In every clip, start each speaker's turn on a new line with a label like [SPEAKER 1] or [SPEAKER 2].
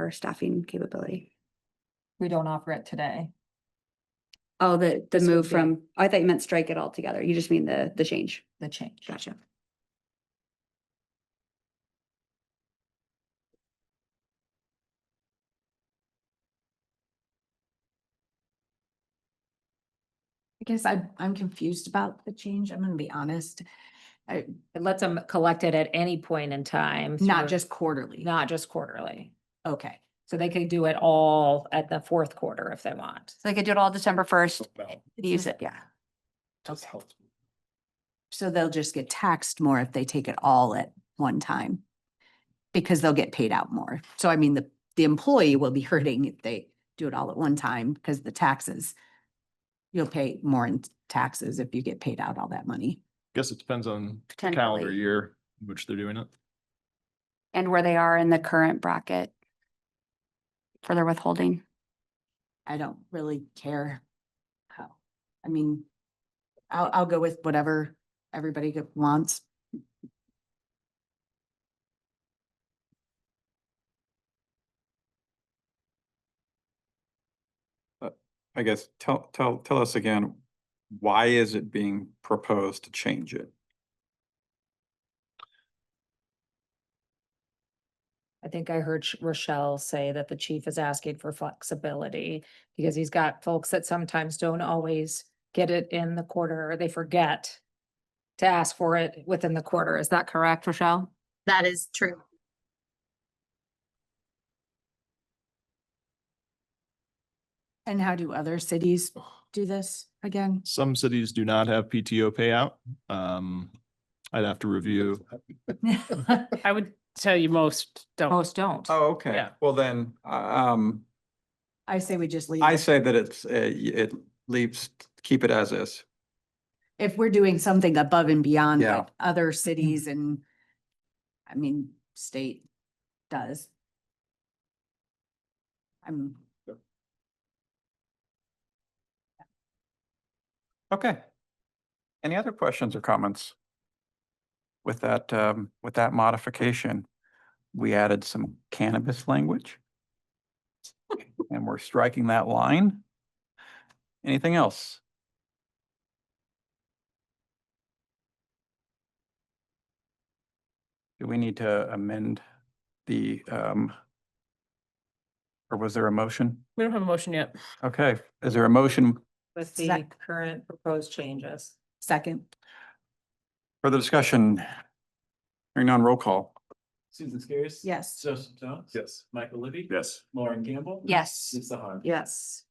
[SPEAKER 1] our staffing capability.
[SPEAKER 2] We don't offer it today.
[SPEAKER 1] Oh, the, the
[SPEAKER 2] This would
[SPEAKER 1] move
[SPEAKER 2] be-
[SPEAKER 1] from, oh, I thought you meant strike it all together. You just mean the, the change.
[SPEAKER 2] the change.
[SPEAKER 1] Gotcha.
[SPEAKER 3] I guess I, I'm confused about the change. I'm gonna be honest. I,
[SPEAKER 4] It lets them collect it at any point in time.
[SPEAKER 3] not
[SPEAKER 4] through-
[SPEAKER 3] just quarterly.
[SPEAKER 4] Not just quarterly.
[SPEAKER 3] Okay.
[SPEAKER 4] So they could do it all at the fourth quarter if they want.
[SPEAKER 1] So they could do it all December first, use it, yeah.
[SPEAKER 3] So they'll just get taxed more if they take it all at one time. Because they'll get paid out more. So I mean, the, the employee will be hurting if they do it all at one time because the taxes. You'll pay more in taxes if you get paid out all that money.
[SPEAKER 5] Guess it depends on the calendar
[SPEAKER 1] Potentially,
[SPEAKER 5] year, in which they're doing it.
[SPEAKER 1] and where they are in the current bracket for their withholding.
[SPEAKER 3] I don't really care how, I mean, I'll, I'll go with whatever everybody go- wants.
[SPEAKER 6] I guess, tell, tell, tell us again, why is it being proposed to change it?
[SPEAKER 4] I think I heard Sh- Rochelle say that the chief is asking for flexibility because he's got folks that sometimes don't always get it in the quarter or they forget to ask for it within the quarter. Is that correct, Rochelle?
[SPEAKER 7] That is true.
[SPEAKER 3] And how do other cities do this again?
[SPEAKER 5] Some cities do not have PTO payout. Um, I'd have to review.
[SPEAKER 8] I would tell you most don't.
[SPEAKER 4] Most don't.
[SPEAKER 6] Oh, okay.
[SPEAKER 8] Yeah.
[SPEAKER 6] Well, then, um,
[SPEAKER 3] I say we just leave.
[SPEAKER 6] I
[SPEAKER 3] it.
[SPEAKER 6] say that it's, uh, it leaves, keep it as is.
[SPEAKER 3] If we're doing something above and beyond
[SPEAKER 6] Yeah. Mm-hmm.
[SPEAKER 3] what other cities and, I mean, state does. I'm,
[SPEAKER 6] Okay. Any other questions or comments? With that, um, with that modification, we added some cannabis language. And we're striking that line. Anything else? Do we need to amend the, um, or was there a motion?
[SPEAKER 8] We don't have a motion yet.
[SPEAKER 6] Okay, is there a motion
[SPEAKER 4] With the
[SPEAKER 3] Sec-
[SPEAKER 4] current proposed changes.
[SPEAKER 3] second,
[SPEAKER 6] Further discussion? Hearing none, roll call.
[SPEAKER 9] Susan Skiris.
[SPEAKER 3] yes.
[SPEAKER 9] Joseph Jones.
[SPEAKER 5] Yes.
[SPEAKER 9] Michael Libby.
[SPEAKER 5] Yes.
[SPEAKER 9] Lauren Campbell.
[SPEAKER 1] Yes.
[SPEAKER 9] Lisa Harper.
[SPEAKER 2] Yes.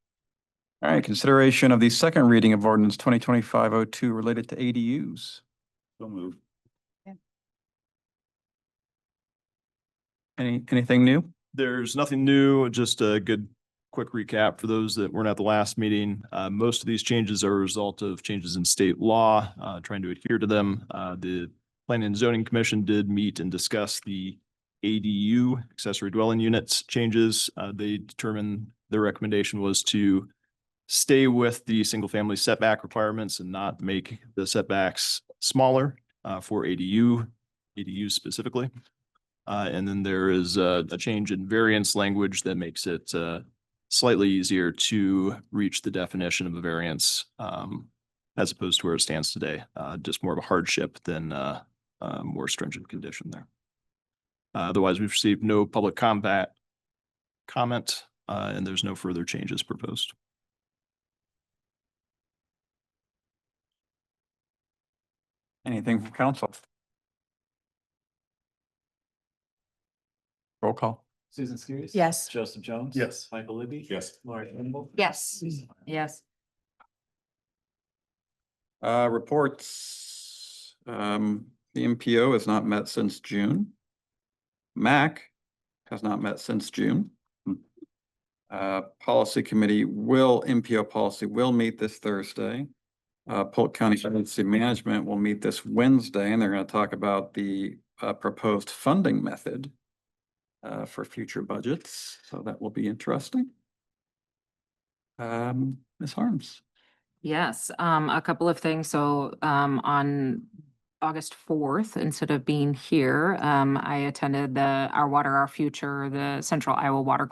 [SPEAKER 6] All right, consideration of the second reading of ordinance twenty twenty-five oh two related to ADUs.
[SPEAKER 9] So move.
[SPEAKER 6] Any, anything new?
[SPEAKER 5] There's nothing new, just a good, quick recap for those that weren't at the last meeting. Uh, most of these changes are a result of changes in state law, uh, trying to adhere to them. Uh, the Planning and Zoning Commission did meet and discuss the ADU, accessory dwelling units changes. Uh, they determined their recommendation was to stay with the single-family setback requirements and not make the setbacks smaller, uh, for ADU, ADU specifically. Uh, and then there is uh, a, a change in variance language that makes it, uh, slightly easier to reach the definition of a variance, um, as opposed to where it stands today, uh, just more of a hardship than, uh, a more stringent condition there. Uh, Otherwise, we've received no public combat comment, uh, and there's no further changes proposed.
[SPEAKER 6] Anything from council? Roll call.
[SPEAKER 9] Susan Skiris.
[SPEAKER 3] Yes.
[SPEAKER 9] Joseph Jones.
[SPEAKER 5] Yes.
[SPEAKER 9] Michael Libby.
[SPEAKER 5] Yes.
[SPEAKER 9] Lauren Campbell.
[SPEAKER 1] Yes.
[SPEAKER 9] Lisa Harper.
[SPEAKER 2] Yes.
[SPEAKER 6] Uh, reports, um, the MPO has not met since June. MAC has not met since June. Uh, policy committee will, MPO policy will meet this Thursday. Uh, Polk County Emergency Management will meet this Wednesday and they're going to talk about the, uh, proposed funding method uh, for future budgets. So that will be interesting. Um, Ms. Harms.
[SPEAKER 4] Yes, um, a couple of things. So, um, on August fourth, instead of being here, um, I attended the Our Water, Our Future, the Central Iowa Water